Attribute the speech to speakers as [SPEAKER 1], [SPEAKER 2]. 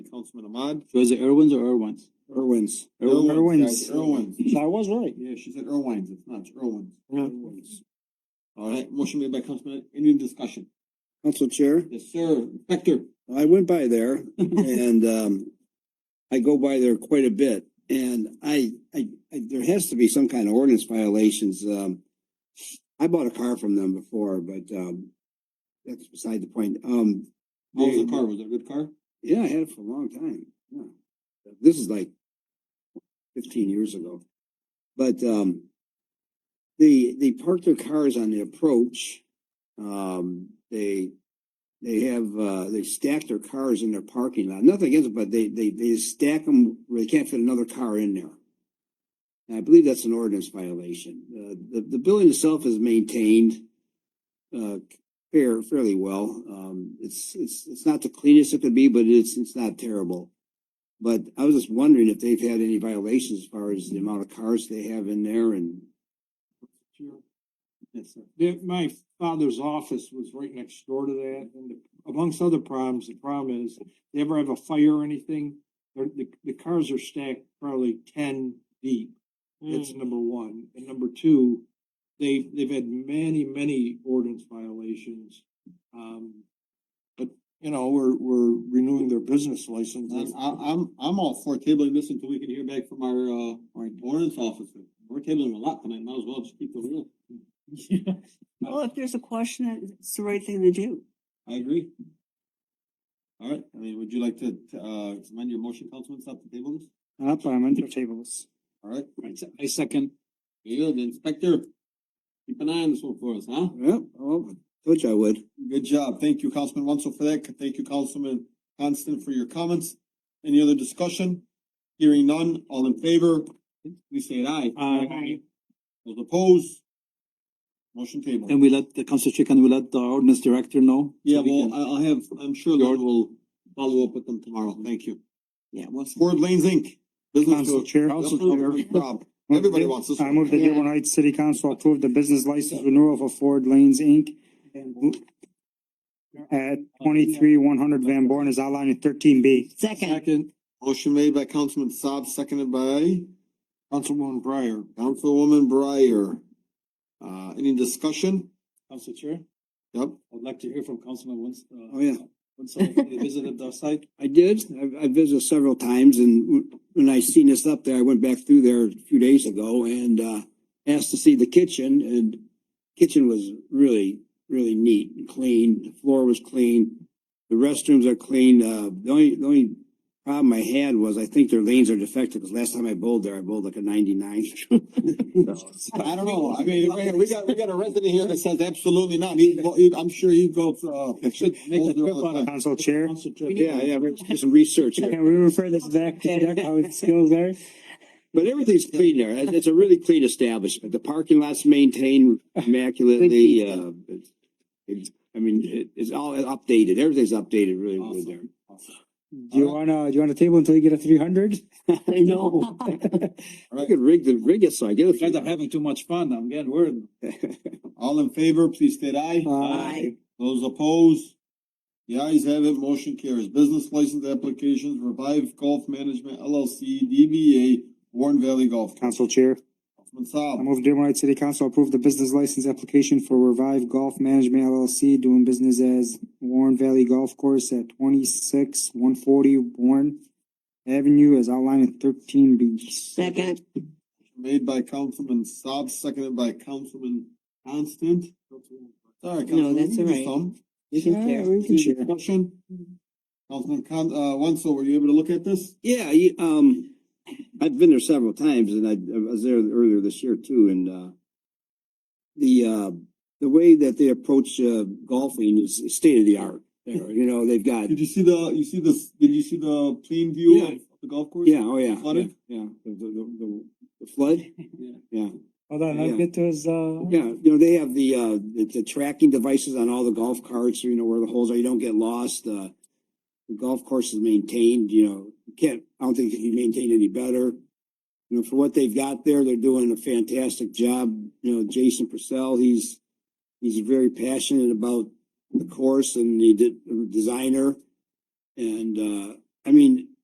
[SPEAKER 1] Councilman Ahmad.
[SPEAKER 2] Was it Irwin's or Irwin's?
[SPEAKER 1] Irwin's.
[SPEAKER 2] Irwin's,
[SPEAKER 1] Irwin's.
[SPEAKER 2] guys,
[SPEAKER 1] Irwin's.
[SPEAKER 2] I was right.
[SPEAKER 1] Yeah, she said Irwin's, it's not, it's Irwin's.
[SPEAKER 2] Yeah.
[SPEAKER 1] Irwin's. All right, motion made by Councilman, any discussion?
[SPEAKER 3] Council Chair,
[SPEAKER 1] Yes, sir, Inspector.
[SPEAKER 3] I went by there and um, I go by there quite a bit. And I, I, I, there has to be some kind of ordinance violations. Um, I bought a car from them before, but um, that's beside the point. Um,
[SPEAKER 1] How was the car? Was it a good car?
[SPEAKER 3] yeah, I had it for a long time. Yeah. This is like fifteen years ago. But um they they park their cars on the approach. Um they they have uh they stack their cars in their parking lot. Nothing against it, but they they they stack them where they can't fit another car in there. And I believe that's an ordinance violation. Uh, the the building itself is maintained uh fair, fairly well. Um, it's, it's, it's not the cleanest it could be, but it's, it's not terrible. But I was just wondering if they've had any violations as far as the amount of cars they have in there and.
[SPEAKER 1] Yes, sir.
[SPEAKER 4] There- my father's office was right next door to that, and the- amongst other problems, the problem is, they ever have a fire or anything, the, the, the cars are stacked probably ten deep.
[SPEAKER 1] Hmm.
[SPEAKER 4] That's number one. And number two, they, they've had many, many ordinance violations. Um, but, you know, we're, we're renewing their business licenses.
[SPEAKER 1] I'm, I- I'm, I'm all for tabling this until we can hear back from our, uh, our ordinance officer. We're tabling a lot tonight, might as well just keep the wheel.
[SPEAKER 2] Oh,
[SPEAKER 5] Well, if there's a question, it's the right thing to do.
[SPEAKER 1] I agree. All right, I mean, would you like to, to, uh, amend your motion, Councilman, stop the table this?
[SPEAKER 2] Up, I'm under tables.
[SPEAKER 1] All right,
[SPEAKER 2] I second.
[SPEAKER 1] you, the inspector. Keep an eye on this one for us, huh?
[SPEAKER 3] Well, oh, told you I would.
[SPEAKER 1] Good job. Thank you, Councilman Wenzel, for that. Thank you, Councilman Constant, for your comments. Any other discussion? Hearing none, all in favor, please say an aye.
[SPEAKER 2] Aye.
[SPEAKER 1] Those opposed? Motion table.
[SPEAKER 2] And we let the council chief and we let the ordinance director know.
[SPEAKER 1] Yeah, well, I, I'll have, I'm sure Lord will follow up with them tomorrow. Thank you.
[SPEAKER 5] Yeah, well,
[SPEAKER 1] Ford Lanes Inc. Business
[SPEAKER 6] Council
[SPEAKER 1] to.
[SPEAKER 6] Chair.
[SPEAKER 1] Rob, Everybody wants this
[SPEAKER 6] I
[SPEAKER 1] one.
[SPEAKER 6] move that Dearborn Heights City Council approve the business license renewal for Ford Lanes Inc. At twenty-three one hundred Van Born is outlined in thirteen B.
[SPEAKER 5] second,
[SPEAKER 4] Second,
[SPEAKER 1] Motion made by Councilman Saab, seconded by
[SPEAKER 4] Councilwoman Breyer.
[SPEAKER 1] Councilwoman Breyer. Uh, any discussion?
[SPEAKER 2] Council chair,
[SPEAKER 1] Yep.
[SPEAKER 2] I'd like to hear from Councilman Wins, uh,
[SPEAKER 3] Oh, yeah.
[SPEAKER 2] they visited the site.
[SPEAKER 3] I did. I, I visited several times and w- when I seen this up there, I went back through there a few days ago and, uh, asked to see the kitchen and kitchen was really, really neat and clean. The floor was clean. The restrooms are clean. Uh, the only, the only problem I had was I think their lanes are defective because last time I bowled there, I bowled like a ninety-nine.
[SPEAKER 1] I don't know. I mean, we- we got, we got a resident here that says absolutely not. He, well, he- I'm sure he goes, uh. should
[SPEAKER 2] Make a
[SPEAKER 1] hold their
[SPEAKER 2] trip
[SPEAKER 1] own
[SPEAKER 2] out
[SPEAKER 1] time.
[SPEAKER 2] of
[SPEAKER 6] Council Chair,
[SPEAKER 3] Yeah, yeah, we do some research. there.
[SPEAKER 6] can we refer this back to check how it skills there?
[SPEAKER 3] But everything's clean there. It- It's a really clean establishment. The parking lot's maintained immaculately,
[SPEAKER 5] Good
[SPEAKER 3] uh, it's- it's, I mean, it, it's all updated. Everything's updated really good there.
[SPEAKER 6] Do
[SPEAKER 2] Uh-huh.
[SPEAKER 6] you wanna, do you wanna table until you get a three hundred?
[SPEAKER 5] I know.
[SPEAKER 3] I could rig the, rig it so I get
[SPEAKER 2] You guys are
[SPEAKER 3] it.
[SPEAKER 2] having too much fun. I'm getting worried.
[SPEAKER 1] All in favor, please state aye.
[SPEAKER 5] Aye.
[SPEAKER 1] Those opposed? The ayes have it, motion carries. Business license applications, Revive Golf Management LLC, DBA, Warren Valley Golf.
[SPEAKER 6] Council Chair,
[SPEAKER 1] Councilman
[SPEAKER 6] I
[SPEAKER 1] Saab.
[SPEAKER 6] move Dearborn Heights City Council approve the business license application for Revive Golf Management LLC doing business as Warren Valley Golf Course at twenty-six one forty Warren Avenue as outlined in thirteen B.
[SPEAKER 5] Second,
[SPEAKER 1] Made by Councilman Saab, seconded by Councilman Constant.
[SPEAKER 5] No,
[SPEAKER 1] Sorry, Councilman.
[SPEAKER 5] that's
[SPEAKER 1] you
[SPEAKER 5] all
[SPEAKER 1] do
[SPEAKER 5] right.
[SPEAKER 1] some.
[SPEAKER 5] we can share.
[SPEAKER 1] Any discussion? Councilman Con, uh, Wenzel, were you able to look at this?
[SPEAKER 3] Yeah, you, um, I've been there several times and I, I was there earlier this year too and, uh, the, uh, the way that they approach, uh, golfing is state of the art there. You know, they've got,
[SPEAKER 1] Did you see the, you see this, did you see the plain view
[SPEAKER 3] Yeah.
[SPEAKER 1] of the golf course?
[SPEAKER 3] yeah, oh yeah.
[SPEAKER 1] Flooded?
[SPEAKER 3] Yeah, the, the- the, the flood. Yeah.
[SPEAKER 6] Hold on, let's
[SPEAKER 3] Yeah.
[SPEAKER 6] get to his, uh.
[SPEAKER 3] Yeah, you know, they have the, uh, the, the tracking devices on all the golf carts, so you know where the holes are, you don't get lost, uh. The golf course is maintained, you know, you can't, I don't think it can be maintained any better. You know, for what they've got there, they're doing a fantastic job, you know, Jason Purcell, he's, he's very passionate about the course and the de- designer. And, uh, I mean,